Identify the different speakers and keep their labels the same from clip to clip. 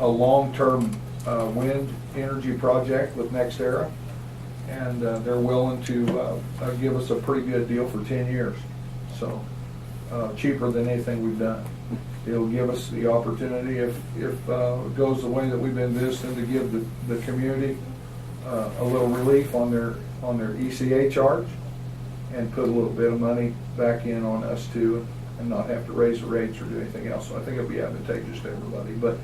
Speaker 1: a long-term uh, wind energy project with NextEra, and uh, they're willing to uh, uh, give us a pretty good deal for 10 years. So uh, cheaper than anything we've done. It'll give us the opportunity, if, if uh, it goes the way that we've been visiting, to give the, the community uh, a little relief on their, on their ECA charge and put a little bit of money back in on us too and not have to raise the rates or do anything else. So I think it'll be advantageous to everybody. But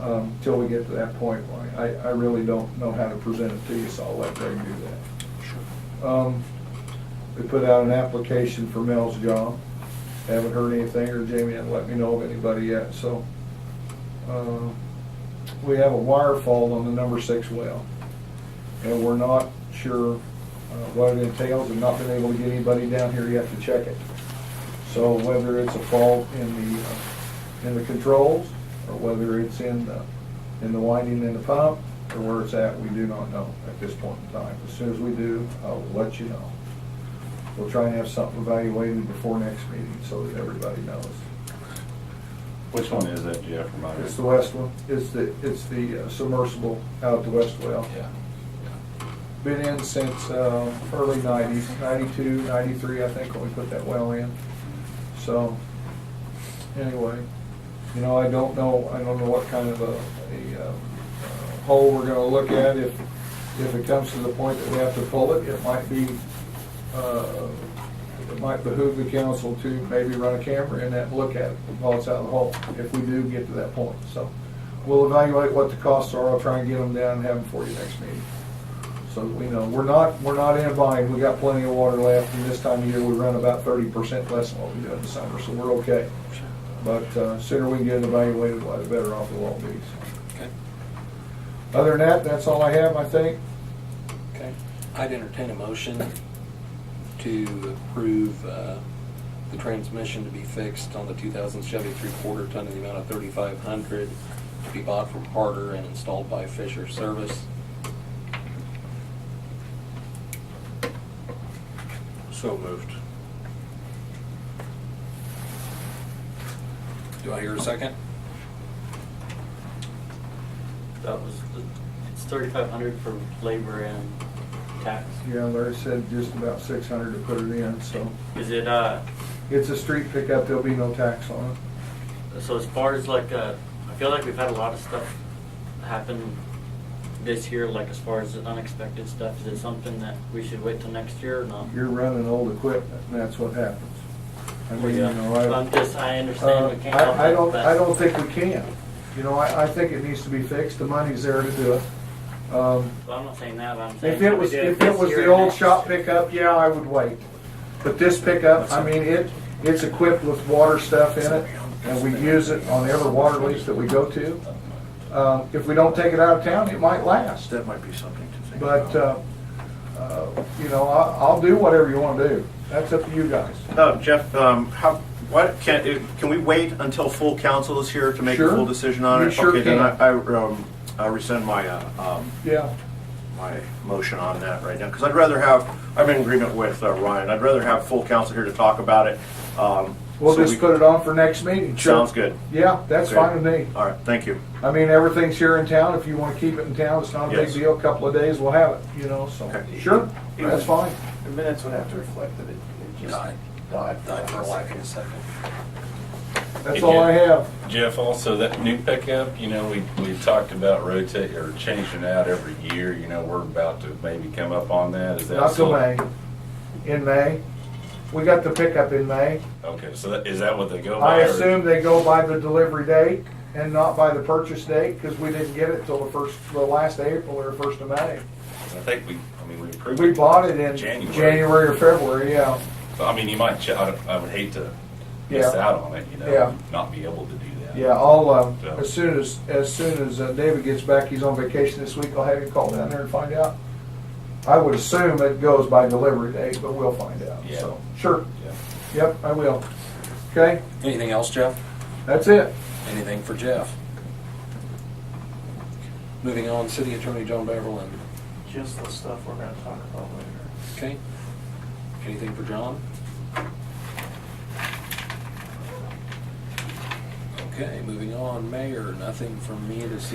Speaker 1: um, till we get to that point, why, I, I really don't know how to present it to you, so I'll let Greg do that. Um, We put out an application for Mel's job. Haven't heard anything, or Jamie hasn't let me know of anybody yet, so. uh, We have a wire fall on the number six well, and we're not sure uh, what it entails, and not been able to get anybody down here yet to check it. So whether it's a fault in the, uh, in the controls, or whether it's in the, in the winding in the pump, or where it's at, we do not know at this point in time. As soon as we do, I'll let you know. We'll try and have something evaluated before next meeting, so that everybody knows.
Speaker 2: Which one is that, Jeff? Remind me.
Speaker 1: It's the west one, it's the, it's the uh, submersible out at the west well.
Speaker 2: Yeah.
Speaker 1: Been in since uh, early nineties, ninety-two, ninety-three, I think, when we put that well in. So, anyway, you know, I don't know, I don't know what kind of a, a uh, uh, hole we're gonna look at. If, if it comes to the point that we have to pull it, it might be, uh, it might behoove the council to maybe run a camera in that and look at it while it's out of the hole, if we do get to that point. So, we'll evaluate what the costs are. I'll try and get them down and have them for you next meeting so that we know. We're not, we're not in a bind, we got plenty of water left, and this time of year, we run about thirty percent less than what we do in the summer, so we're okay. But uh, sooner we can get it evaluated, why the better off we'll all be.
Speaker 3: Okay,
Speaker 1: Other than that, that's all I have, I think.
Speaker 3: okay. I'd entertain a motion to approve uh, the transmission to be fixed on the 2000 Chevy three-quarter ton in the amount of 3,500 to be bought from Harder and installed by Fisher Service.
Speaker 4: So moved.
Speaker 3: Do I hear a second?
Speaker 5: That was, the- it's thirty-five hundred for labor and tax.
Speaker 1: Yeah, Larry said just about six hundred to put it in, so
Speaker 5: Is it, uh,
Speaker 1: it's a street pickup, there'll be no tax on it.
Speaker 5: so as far as like, uh, I feel like we've had a lot of stuff happen this year, like as far as the unexpected stuff, is it something that we should wait till next year or not?
Speaker 1: You're running old equipment, and that's what happens. I mean, you
Speaker 5: Yeah.
Speaker 1: know, I.
Speaker 5: I'm just, I understand
Speaker 1: Uh,
Speaker 5: we can't. help
Speaker 1: I, I
Speaker 5: it,
Speaker 1: don't,
Speaker 5: but-
Speaker 1: I don't think we can. You know, I, I think it needs to be fixed, the money's there to do it. Um,
Speaker 5: Well, I'm not saying that, I'm saying.
Speaker 1: If it
Speaker 5: we
Speaker 1: was,
Speaker 5: do
Speaker 1: if
Speaker 5: this
Speaker 1: it was
Speaker 5: year
Speaker 1: the
Speaker 5: or
Speaker 1: old
Speaker 5: next.
Speaker 1: shop pickup, yeah, I would wait. But this pickup, I mean, it, it's equipped with water stuff in it, and we use it on every water lease that we go to. Uh, If we don't take it out of town, it might last,
Speaker 4: That might be something to think about.
Speaker 1: but, uh, uh, you know, I, I'll do whatever you wanna do. That's up to you guys.
Speaker 6: Uh, Jeff, um, how, what, can, if- can we wait until full council is here to make a
Speaker 1: Sure.
Speaker 6: full decision on it?
Speaker 1: You sure
Speaker 6: Okay, then
Speaker 1: can.
Speaker 6: I, I, um, I rescind my, uh, um,
Speaker 1: Yeah,
Speaker 6: my motion on that right now, because I'd rather have, I'm in agreement with uh, Ryan, I'd rather have full council here to talk about it. um,
Speaker 1: we'll
Speaker 6: so
Speaker 1: just
Speaker 6: we-
Speaker 1: put it on for next meeting. Sure.
Speaker 6: Sounds good.
Speaker 1: Yeah, that's
Speaker 6: Okay.
Speaker 1: fine with me.
Speaker 6: All right, thank you.
Speaker 1: I mean, everything's here in town. If you wanna keep it in town, it's not a big
Speaker 6: Yes.
Speaker 1: deal. A Couple of days, we'll have it, you know, so.
Speaker 6: Okay.
Speaker 1: Sure, that's fine.
Speaker 4: The minutes would have to reflect that it it just
Speaker 2: Died.
Speaker 4: died for lack of a second.
Speaker 1: That's
Speaker 2: Did
Speaker 1: all
Speaker 2: you-
Speaker 1: I have.
Speaker 2: Jeff, also that new pickup, you know, we, we talked about rotate or changing out every year, you know, we're about to maybe come up on that. Is that
Speaker 1: Not till
Speaker 2: still-
Speaker 1: May. In May. We got the pickup in May.
Speaker 2: Okay, so that, is that what they go by?
Speaker 1: I
Speaker 2: or-
Speaker 1: assume they go by the delivery date and not by the purchase date because we didn't get it till the first, the last April or first of May.
Speaker 2: I think we, I mean, we approved.
Speaker 1: We bought it in
Speaker 2: January.
Speaker 1: January or February, yeah.
Speaker 2: So, I mean, you might, ch- I don't- I would hate to miss
Speaker 1: Yeah.
Speaker 2: out on it, you know?
Speaker 1: Yeah.
Speaker 2: Not be able to do that.
Speaker 1: Yeah, I'll, um,
Speaker 2: Yeah.
Speaker 1: as soon as, as soon as uh, David gets back, he's on vacation this week, I'll have him call down there and find out. I would assume it goes by delivery date, but we'll find out,
Speaker 2: Yeah.
Speaker 1: so, sure,
Speaker 2: Yeah.
Speaker 1: yep, I will. Okay,
Speaker 3: Anything else, Jeff?
Speaker 1: that's it.
Speaker 3: Anything for Jeff? Moving on, City Attorney John Beverly.
Speaker 4: Just the stuff we're gonna talk about later.
Speaker 3: Okay? Anything for John? Okay, moving on, Mayor, nothing from me this